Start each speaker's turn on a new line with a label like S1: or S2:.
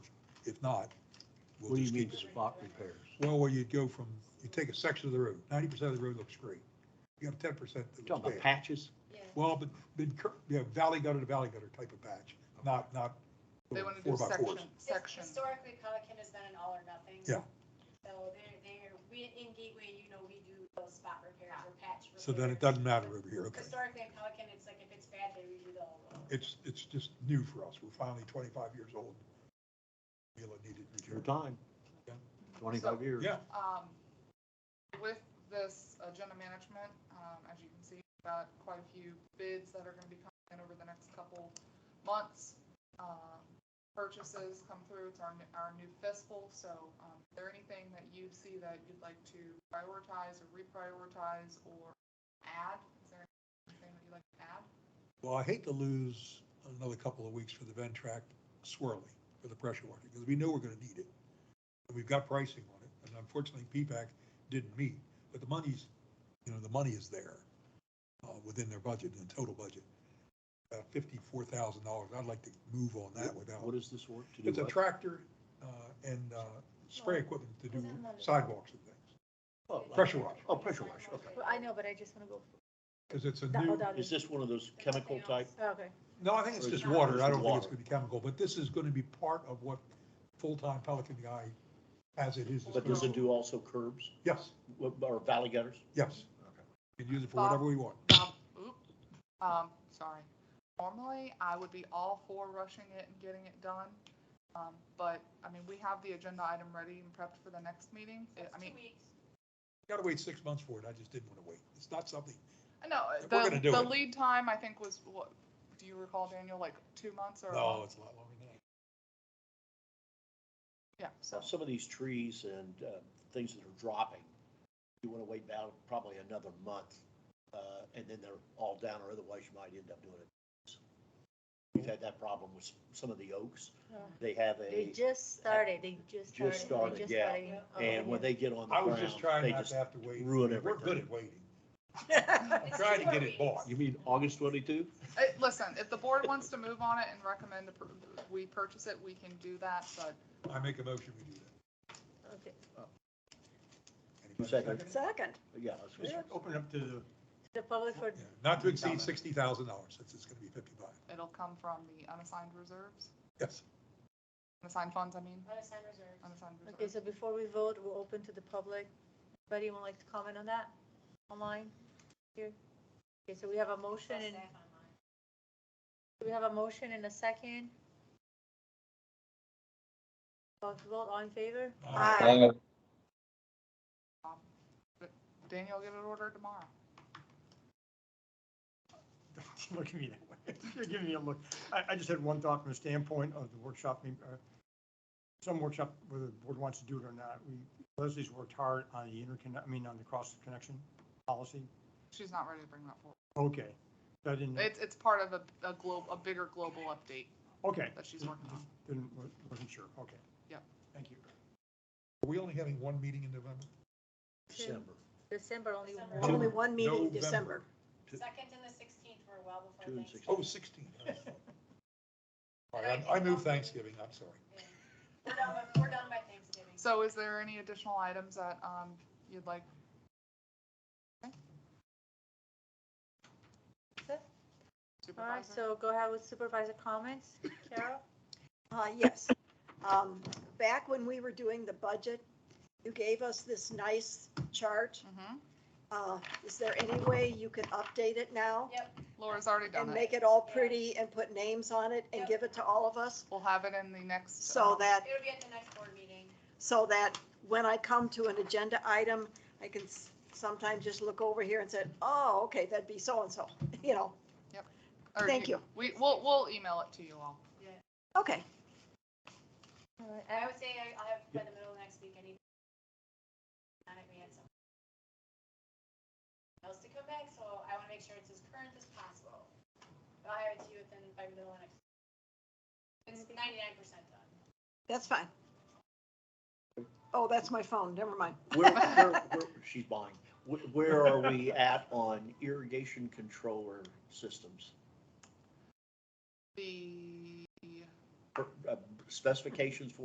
S1: If not, we'll
S2: What do you
S1: just
S2: mean
S1: keep it.
S2: spot repairs?
S1: Well, where you'd go from, you take a section of the road, ninety percent of the road looks great. You got ten percent that
S2: You
S1: looks
S2: Talking
S1: bad.
S2: about patches?
S1: Well, but, but, cur- yeah, valley gutter to valley gutter type of patch, not, not
S3: They want to do
S1: four by
S3: section,
S1: fours.
S3: section.
S4: Historically, Pelican has been an all or nothing.
S1: Yeah.
S4: So they're, they're, we, in Gateway, you know, we do those spot repairs or patch repairs.
S1: So then it doesn't matter over here, okay.
S4: Historically, in Pelican, it's like if it's bad, they redo the whole road.
S1: It's, it's just new for us. We're finally twenty-five years old. Feel it needed
S2: Your
S1: repair.
S2: time.
S1: Yeah.
S2: Twenty-five years.
S1: Yeah,
S3: Um, with this agenda management, um, as you can see, we've got quite a few bids that are gonna be coming in over the next couple months. Um, Purchases come through, it's our, n- our new fiscal, so, um, is there anything that you see that you'd like to prioritize or reprioritize or add? Is there anything that you'd like to add?
S1: well, I hate to lose another couple of weeks for the Ventrac swirling for the pressure washer, because we know we're gonna need it. And we've got pricing on it, and unfortunately, PPAC didn't meet, but the money's, you know, the money is there uh, within their budget, in total budget. About fifty-four thousand dollars. I'd like to move on that without.
S2: What is this work to do?
S1: It's a
S2: what?
S1: tractor uh, and uh, spray equipment to do
S4: Wasn't that-
S1: sidewalks and things,
S2: Oh, like-
S1: pressure washer,
S2: Oh, pressure washer, okay.
S5: Well, I know, but I just want to go,
S1: because it's a
S5: That-
S1: new,
S5: oh, that-
S2: Is this one of those chemical type?
S5: Oh, okay.
S1: no, I think it's just water, I don't think it's gonna be chemical, but this is gonna be part of what full-time Pelican guy as it is.
S2: But does it do also curbs
S1: Yes,
S2: What- or valley gutters?
S1: yes. You can use it for whatever we want.
S3: Bob, oop, um, sorry. Normally, I would be all for rushing it and getting it done. Um, but, I mean, we have the agenda item ready and prepped for the next meeting.
S1: Uh,
S3: It- I
S4: It's
S3: mean,
S4: two weeks.
S1: Gotta wait six months for it, I just didn't wanna wait. It's not something,
S3: I know,
S1: We're
S3: the,
S1: gonna do
S3: the
S1: it.
S3: lead time, I think, was what, do you recall, Daniel, like two months or? a
S1: no,
S3: month?
S1: it's a lot longer than that.
S3: Yeah, so,
S2: Some of these trees and uh, things that are dropping, you want to wait about probably another month, uh, and then they're all down, or otherwise you might end up doing it. We've had that problem with some of the oaks. They have
S5: They
S2: a,
S5: just started, they just started.
S2: Just
S5: they
S2: started, yeah.
S5: started. Oh,
S2: and when they get on
S1: I
S2: the
S1: was just
S2: ground,
S1: trying
S2: they
S1: not
S2: just.
S1: to have to wait.
S2: ruin
S1: We're good
S2: everything.
S1: at waiting.
S5: Yeah.
S1: I'm trying to get it bought.
S2: You mean August twenty-two?
S3: eh, listen, if the board wants to move on it and recommend appro- we purchase it, we can do that, but
S1: I make a motion, we do that.
S5: Okay.
S1: Anybody
S2: Second.
S1: it?
S5: Second,
S2: Yeah. I was gonna say.
S6: Just Open it up to the,
S5: the public for,
S1: Yeah, Not to exceed sixty thousand dollars, since it's gonna be fifty-five.
S3: it'll come from the unassigned reserves,
S1: Yes,
S3: unassigned funds, I mean,
S4: Unassigned reserves.
S3: unassigned reserves.
S5: okay, so before we vote, we're open to the public. Anybody would like to comment on that online here? Okay, so we have a motion and,
S4: Staff online.
S5: we have a motion and a second. Vote, vote, all in favor?
S1: Aye.
S3: Um, Daniel, get it ordered tomorrow.
S6: don't look at me that way. You're giving me a look. I, I just had one thought from the standpoint of the workshop, mean, uh, some workshop, whether the board wants to do it or not. We Leslie's worked hard on the interconnect, I mean, on the cross connection policy.
S3: She's not ready to bring that forward.
S6: Okay, I didn't,
S3: It's, it's part of a, a globe, a bigger global update
S6: okay,
S3: that she's working on.
S6: didn't, wasn't sure, okay.
S3: Yep.
S6: Thank you.
S1: Are we only having one meeting in November?
S2: December.
S5: December, only
S4: December.
S5: one.
S7: Only one meeting in
S1: November.
S7: December.
S2: Two-
S4: Second and the sixteenth were well
S2: two
S4: before
S2: and
S4: Thanksgiving.
S2: sixteen.
S1: Oh, sixteen. All right, I I move Thanksgiving, I'm sorry.
S4: Yeah. We're done by- We're done by Thanksgiving.
S3: So is there any additional items that, um, you'd like?
S5: All right,
S3: Supervisor?
S5: so go ahead with supervisor comments. Carol?
S7: Uh, yes. Um, back when we were doing the budget, you gave us this nice chart.
S3: Mhm.
S7: Uh, is there any way you could update it now?
S4: Yep,
S3: Laura's already
S7: And
S3: done it.
S7: make it all pretty and put names on it and give it to all of us?
S3: We'll have it in the next.
S7: So
S3: um,
S7: that,
S4: it'll be at the next board meeting.
S7: so that when I come to an agenda item, I can s- sometimes just look over here and say, oh, okay, that'd be so-and-so, you know?
S3: or
S7: thank you.
S3: We, we'll, we'll email it to you all.
S7: Okay,
S5: All right,
S4: I
S5: Al-
S4: would say I- I'll have it by the middle of next week, I need. Not if we had something else to come back, so I want to make sure it's as current as possible. But I'll have it to you within, by middle of next. It's ninety-nine percent done.
S7: that's fine. Oh, that's my phone, never mind.
S2: Where, where, where, she's buying. Where- Where are we at on irrigation controller systems?
S3: The
S2: Uh, Specifications for